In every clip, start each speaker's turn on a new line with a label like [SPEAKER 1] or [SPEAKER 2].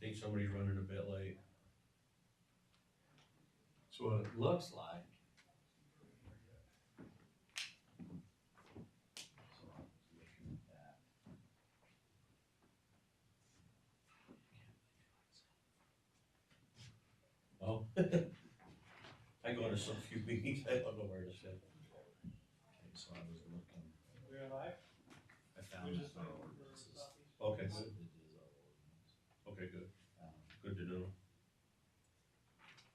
[SPEAKER 1] think somebody's running a bit late.
[SPEAKER 2] So what it looks like.
[SPEAKER 1] Oh. I go to so few meetings, I don't know where to sit.
[SPEAKER 3] Okay, so I was looking,
[SPEAKER 4] We're live.
[SPEAKER 3] I found
[SPEAKER 4] We're
[SPEAKER 3] that
[SPEAKER 4] just
[SPEAKER 3] our
[SPEAKER 4] looking for
[SPEAKER 3] ordinances.
[SPEAKER 4] copies.
[SPEAKER 1] Okay,
[SPEAKER 3] This
[SPEAKER 1] good,
[SPEAKER 3] is our ordinance,
[SPEAKER 1] okay, good,
[SPEAKER 3] um,
[SPEAKER 1] good to know.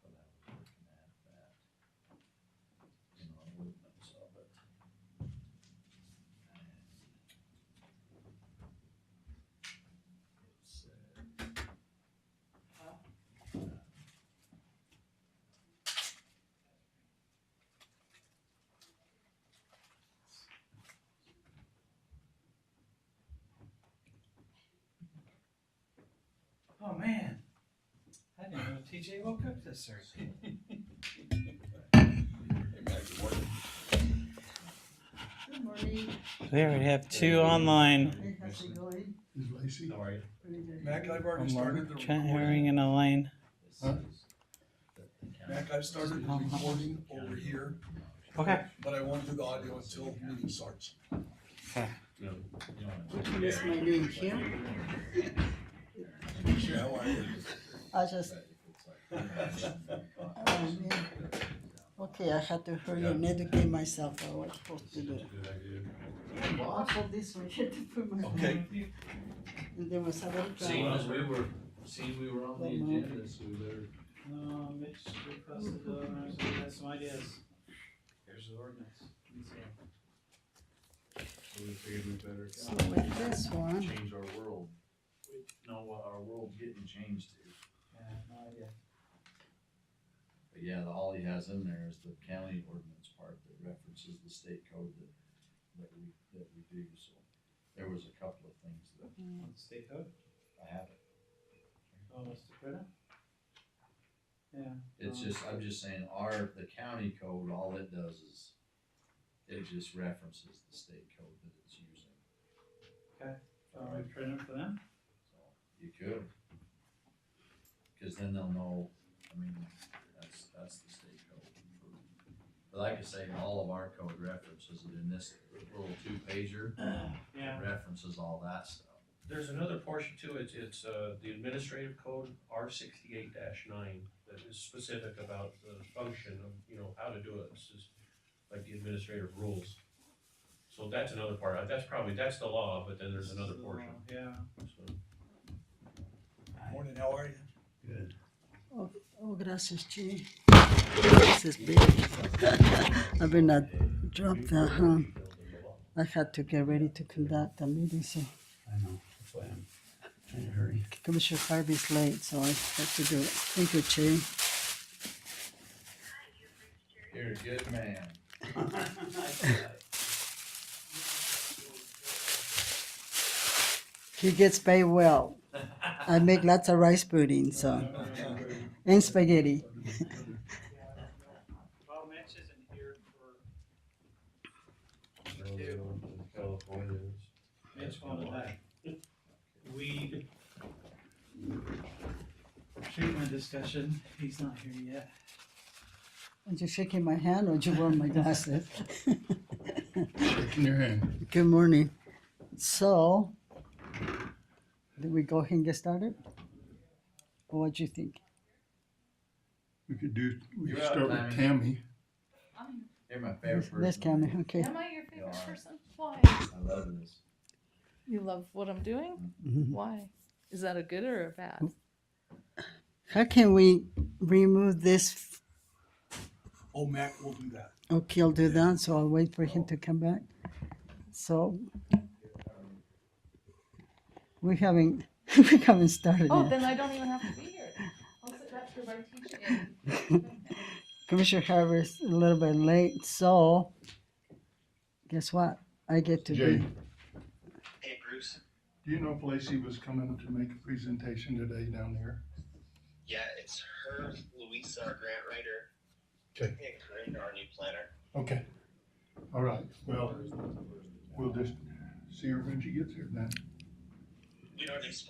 [SPEAKER 3] but I was looking at that. You know, I wouldn't have saw it. It said.
[SPEAKER 4] Huh?
[SPEAKER 3] uh,
[SPEAKER 4] Oh, man. I didn't know TJ will cook this early.
[SPEAKER 5] Good morning.
[SPEAKER 6] There we have two online.
[SPEAKER 5] Hey, how's it going?
[SPEAKER 7] Is Lacey?
[SPEAKER 1] How are you?
[SPEAKER 5] Pretty good.
[SPEAKER 7] Mac, I've already
[SPEAKER 6] One
[SPEAKER 7] started
[SPEAKER 6] more.
[SPEAKER 7] the
[SPEAKER 6] Trent
[SPEAKER 7] recording.
[SPEAKER 6] Herring and Elaine.
[SPEAKER 3] This
[SPEAKER 7] Huh?
[SPEAKER 3] is the- the county-
[SPEAKER 7] Mac, I've started the recording over here,
[SPEAKER 6] Okay.
[SPEAKER 7] but I won't do the audio until meeting starts.
[SPEAKER 1] No.
[SPEAKER 3] You know,
[SPEAKER 5] Did you miss my name, Kim?
[SPEAKER 7] Yeah, well,
[SPEAKER 5] I just,
[SPEAKER 3] it's like-
[SPEAKER 5] oh, man. Okay, I had to hurry and educate myself on what I'm supposed to do.
[SPEAKER 1] That's a good idea.
[SPEAKER 5] Awful this way, had to put my.
[SPEAKER 1] Okay.
[SPEAKER 5] And there was a little
[SPEAKER 2] Seeing
[SPEAKER 5] problem.
[SPEAKER 2] as we were, seeing we were on the agenda, so we better.
[SPEAKER 4] No, Mitch requested, uh, so we had some ideas. Here's the ordinance.
[SPEAKER 2] So we figured we better
[SPEAKER 5] So with this one,
[SPEAKER 3] change our world. Know what our world's getting changed to.
[SPEAKER 4] Yeah, no idea.
[SPEAKER 3] But yeah, the, all he has in there is the county ordinance part that references the state code that, that we, that we do, so. There was a couple of things that
[SPEAKER 4] On the state code,
[SPEAKER 3] I haven't,
[SPEAKER 4] oh, Mr. Critter? Yeah.
[SPEAKER 3] it's
[SPEAKER 4] um,
[SPEAKER 3] just, I'm just saying, our, the county code, all it does is, it just references the state code that it's using.
[SPEAKER 4] Uh, we printed for them?
[SPEAKER 3] So, You could. Cause then they'll know, I mean, that's, that's the state code. But like I say, all of our code references it in this little two pager,
[SPEAKER 4] Yeah.
[SPEAKER 3] references all that stuff.
[SPEAKER 1] There's another portion too, it's, it's, uh, the administrative code R sixty-eight nine that is specific about the function of, you know, how to do it. This is like the administrative rules. So that's another part. Uh, That's probably, that's the law, but then there's another
[SPEAKER 4] So,
[SPEAKER 1] portion,
[SPEAKER 4] Yeah.
[SPEAKER 1] so.
[SPEAKER 7] Morning, how are you?
[SPEAKER 5] oh, gracias, Chi. This is big. I mean, I dropped the, um, I had to get ready to conduct a meeting, so.
[SPEAKER 8] I know, that's why I'm trying to hurry.
[SPEAKER 5] Commissioner Harvey's late, so I have to do it. Thank you, Chi.
[SPEAKER 3] You're a good man.
[SPEAKER 5] He gets paid well. I make lots of rice pudding, so and spaghetti.
[SPEAKER 4] Well, Mitch isn't here for,
[SPEAKER 1] California's.
[SPEAKER 4] Mitch wanted that weed treatment discussion, he's not here yet.
[SPEAKER 5] Are you shaking my hand or you wear my glasses?
[SPEAKER 7] Shaking your hand.
[SPEAKER 5] Good morning. So, did we go ahead and get started? Or what do you think?
[SPEAKER 7] We could do, we
[SPEAKER 3] You're up, start with Diamond.
[SPEAKER 7] Tammy.
[SPEAKER 3] You're my favorite
[SPEAKER 5] Let's
[SPEAKER 3] person.
[SPEAKER 5] let's count it. Okay.
[SPEAKER 9] Am I your favorite
[SPEAKER 3] are.
[SPEAKER 9] person? Why?
[SPEAKER 3] I love this.
[SPEAKER 9] You love what I'm doing?
[SPEAKER 5] Mhm.
[SPEAKER 9] Why? Is that a good or a bad?
[SPEAKER 5] How can we remove this? f-
[SPEAKER 7] Oh, Mac will do that. Oh.
[SPEAKER 5] Okay, I'll do that. So I'll wait for him to come back. So we haven't we haven't started
[SPEAKER 9] Oh,
[SPEAKER 5] yet.
[SPEAKER 9] then I don't even have to be here. I'll sit back here by teaching.
[SPEAKER 5] Commissioner Harvey's a little bit late, so guess what? I get to
[SPEAKER 7] Jay.
[SPEAKER 5] be.
[SPEAKER 10] Hey Bruce,
[SPEAKER 7] Do you know if Lacey was coming to make a presentation today down here?
[SPEAKER 10] yeah, it's her, Louisa, our grant writer.
[SPEAKER 7] Okay.
[SPEAKER 10] And Corinne, our new planner.
[SPEAKER 7] Okay. All right, well, we'll just see her when she gets here then.
[SPEAKER 10] We don't expect